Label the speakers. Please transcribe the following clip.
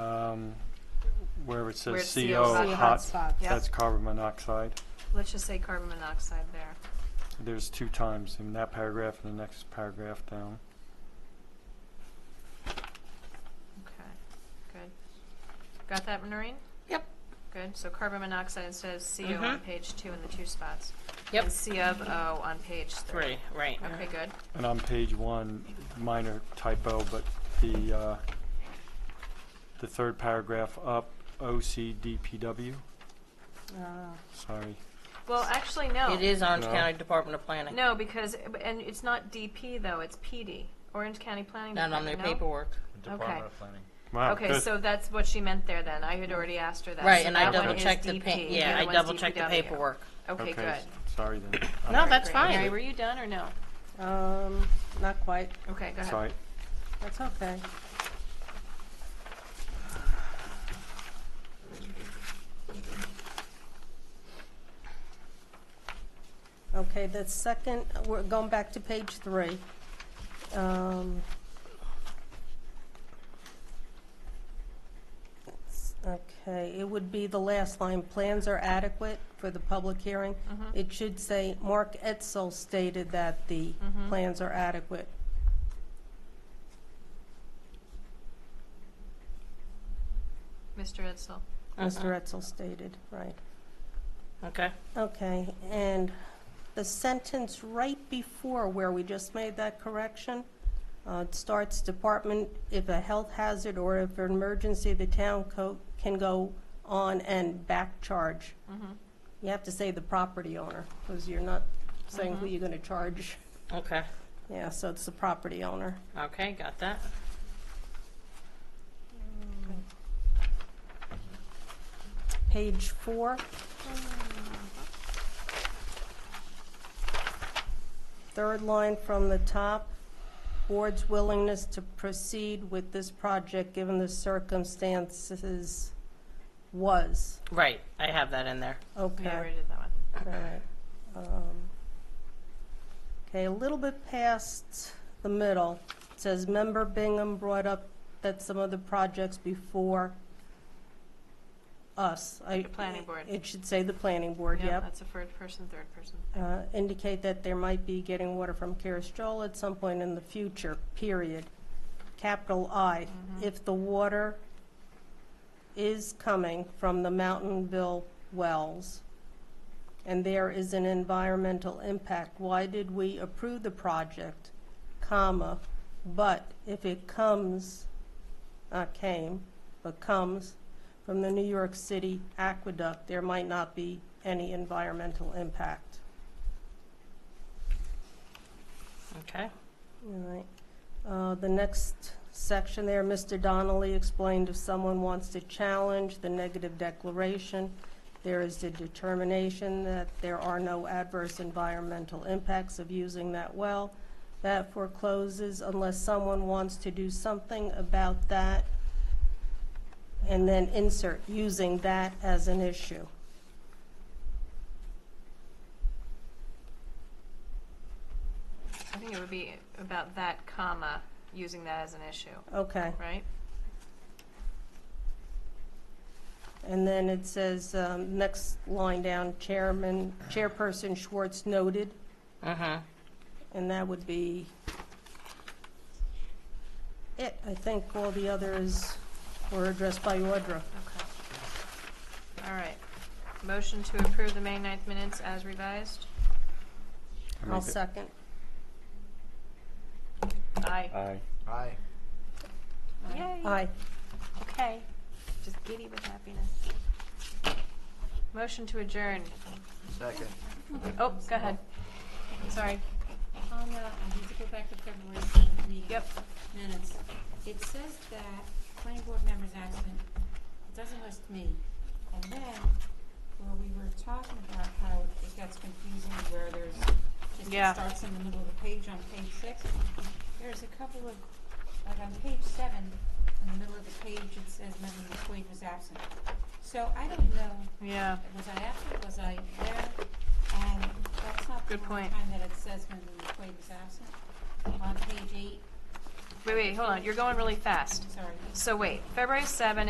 Speaker 1: um, where it
Speaker 2: Where it
Speaker 1: says
Speaker 2: says
Speaker 1: CO
Speaker 2: CO
Speaker 1: hot,
Speaker 3: hotspots.
Speaker 2: Yeah.
Speaker 1: that's carbon monoxide.
Speaker 2: Let's just say carbon monoxide there.
Speaker 1: There's two times in that paragraph and the next paragraph down.
Speaker 2: Okay, good. Got that, Noreen?
Speaker 4: Yep.
Speaker 2: Good, so carbon monoxide says CO on
Speaker 4: Mhm.
Speaker 2: page two in the two spots.
Speaker 4: Yep.
Speaker 2: And C of O on page three.
Speaker 4: Three, right. yeah.
Speaker 2: Okay, good.
Speaker 1: And on page one, minor typo, but the, uh, the third paragraph up, OCDPW, sorry.
Speaker 2: Well, actually, no.
Speaker 4: It is Orange
Speaker 1: No.
Speaker 4: County Department of Planning.
Speaker 2: No, because, and it's not DP though, it's PD, Orange County Planning
Speaker 4: Not on their
Speaker 2: Department, no?
Speaker 4: paperwork.
Speaker 2: Okay.
Speaker 5: Department of Planning.
Speaker 4: Oh,
Speaker 1: Wow,
Speaker 2: Okay,
Speaker 1: good.
Speaker 2: so that's what she meant there then. I had already asked her that.
Speaker 4: Right,
Speaker 2: So
Speaker 4: and I
Speaker 2: that one
Speaker 4: double
Speaker 2: is
Speaker 4: checked the,
Speaker 2: DP,
Speaker 4: pa-
Speaker 2: the
Speaker 4: yeah,
Speaker 2: other
Speaker 4: I
Speaker 2: one's
Speaker 4: double checked the
Speaker 2: DPW.
Speaker 4: paperwork.
Speaker 2: Okay,
Speaker 1: Okay,
Speaker 2: good.
Speaker 1: s- Sorry then. All
Speaker 4: No,
Speaker 1: right.
Speaker 2: Alright,
Speaker 4: that's
Speaker 2: great.
Speaker 4: fine.
Speaker 2: Mary, were you done or no?
Speaker 3: Um, not quite.
Speaker 2: Okay, go ahead.
Speaker 1: Sorry,
Speaker 3: That's okay. Okay, the second, we're going back to page three. Um, it's- Okay, it would be the last line, plans are adequate for the public hearing. It should say, Mark Etzel stated that the plans are adequate.
Speaker 2: Mr. Edsel.
Speaker 4: Uh-huh.
Speaker 3: Mr. Etzel stated, right.
Speaker 4: Okay.
Speaker 3: Okay, and the sentence right before where we just made that correction, uh, it starts department, if a health hazard or if an emergency, the town co- can go on and back charge.
Speaker 2: Mm-hmm.
Speaker 3: You have to say the property owner, because you're not saying who you're gonna charge.
Speaker 4: Okay.
Speaker 3: Yeah, so it's the property owner.
Speaker 4: Okay. Got that.
Speaker 3: Page four. Third line from the top, board's willingness to proceed with this project given the circumstances was.
Speaker 4: Right. I have that in there.
Speaker 2: Yeah, I
Speaker 3: Okay,
Speaker 2: already did that one.
Speaker 3: all right. Um, Okay, a little bit past the middle, it says member Bingham brought up that some of the projects before us. I-
Speaker 2: The planning board.
Speaker 3: It should say the planning board,
Speaker 2: Yeah,
Speaker 3: yep.
Speaker 2: that's a first person, third person.
Speaker 3: uh, indicate that there might be getting water from Caristol at some point in the future, period. Capital I, if the water is coming from the Mountainville wells and there is an environmental impact, why did we approve the project, comma, but if it comes, not came, but comes from the New York City aqueduct, there might not be any environmental impact.
Speaker 4: Okay.
Speaker 3: All right. Uh, The next section there, Mr. Donnelly explained if someone wants to challenge the negative declaration, there is the determination that there are no adverse environmental impacts of using that well. That forecloses unless someone wants to do something about that. And then insert, using that as an issue.
Speaker 2: I think it would be about that comma, using that as an issue,
Speaker 3: Okay.
Speaker 2: right?
Speaker 3: And then it says, um, next line down, Chairman, Chairperson Schwartz noted
Speaker 4: Mhm.
Speaker 3: And that would be it. I think all the others were addressed by Audra.
Speaker 2: Okay. All right. Motion to approve the May 9th minutes as revised?
Speaker 1: I
Speaker 3: I'll
Speaker 1: make it-
Speaker 3: second.
Speaker 2: Aye.
Speaker 1: Aye.
Speaker 5: Aye.
Speaker 2: Yay.
Speaker 3: Aye.
Speaker 2: Okay. Just giddy with happiness. Motion to adjourn.
Speaker 5: Second.
Speaker 2: Oh, go ahead. Sorry.
Speaker 6: On the, I need to go back to February 18th meeting.
Speaker 2: Yep.
Speaker 6: Minutes. It says that planning board members absent, it doesn't list me. And then, where we were talking about how it gets confusing where there's, just
Speaker 2: Yeah.
Speaker 6: it starts in the middle of the page on page six. There's a couple of, like on page seven, in the middle of the page, it says member McQuaid was absent. So I don't know
Speaker 2: Yeah.
Speaker 6: was I absent, was I there? And that's not the
Speaker 2: Good
Speaker 6: only
Speaker 2: point.
Speaker 6: time that it says when the employee was absent. On page eight,
Speaker 2: Wait, wait, hold on. You're going really fast.
Speaker 6: sorry.
Speaker 2: So wait, February 7th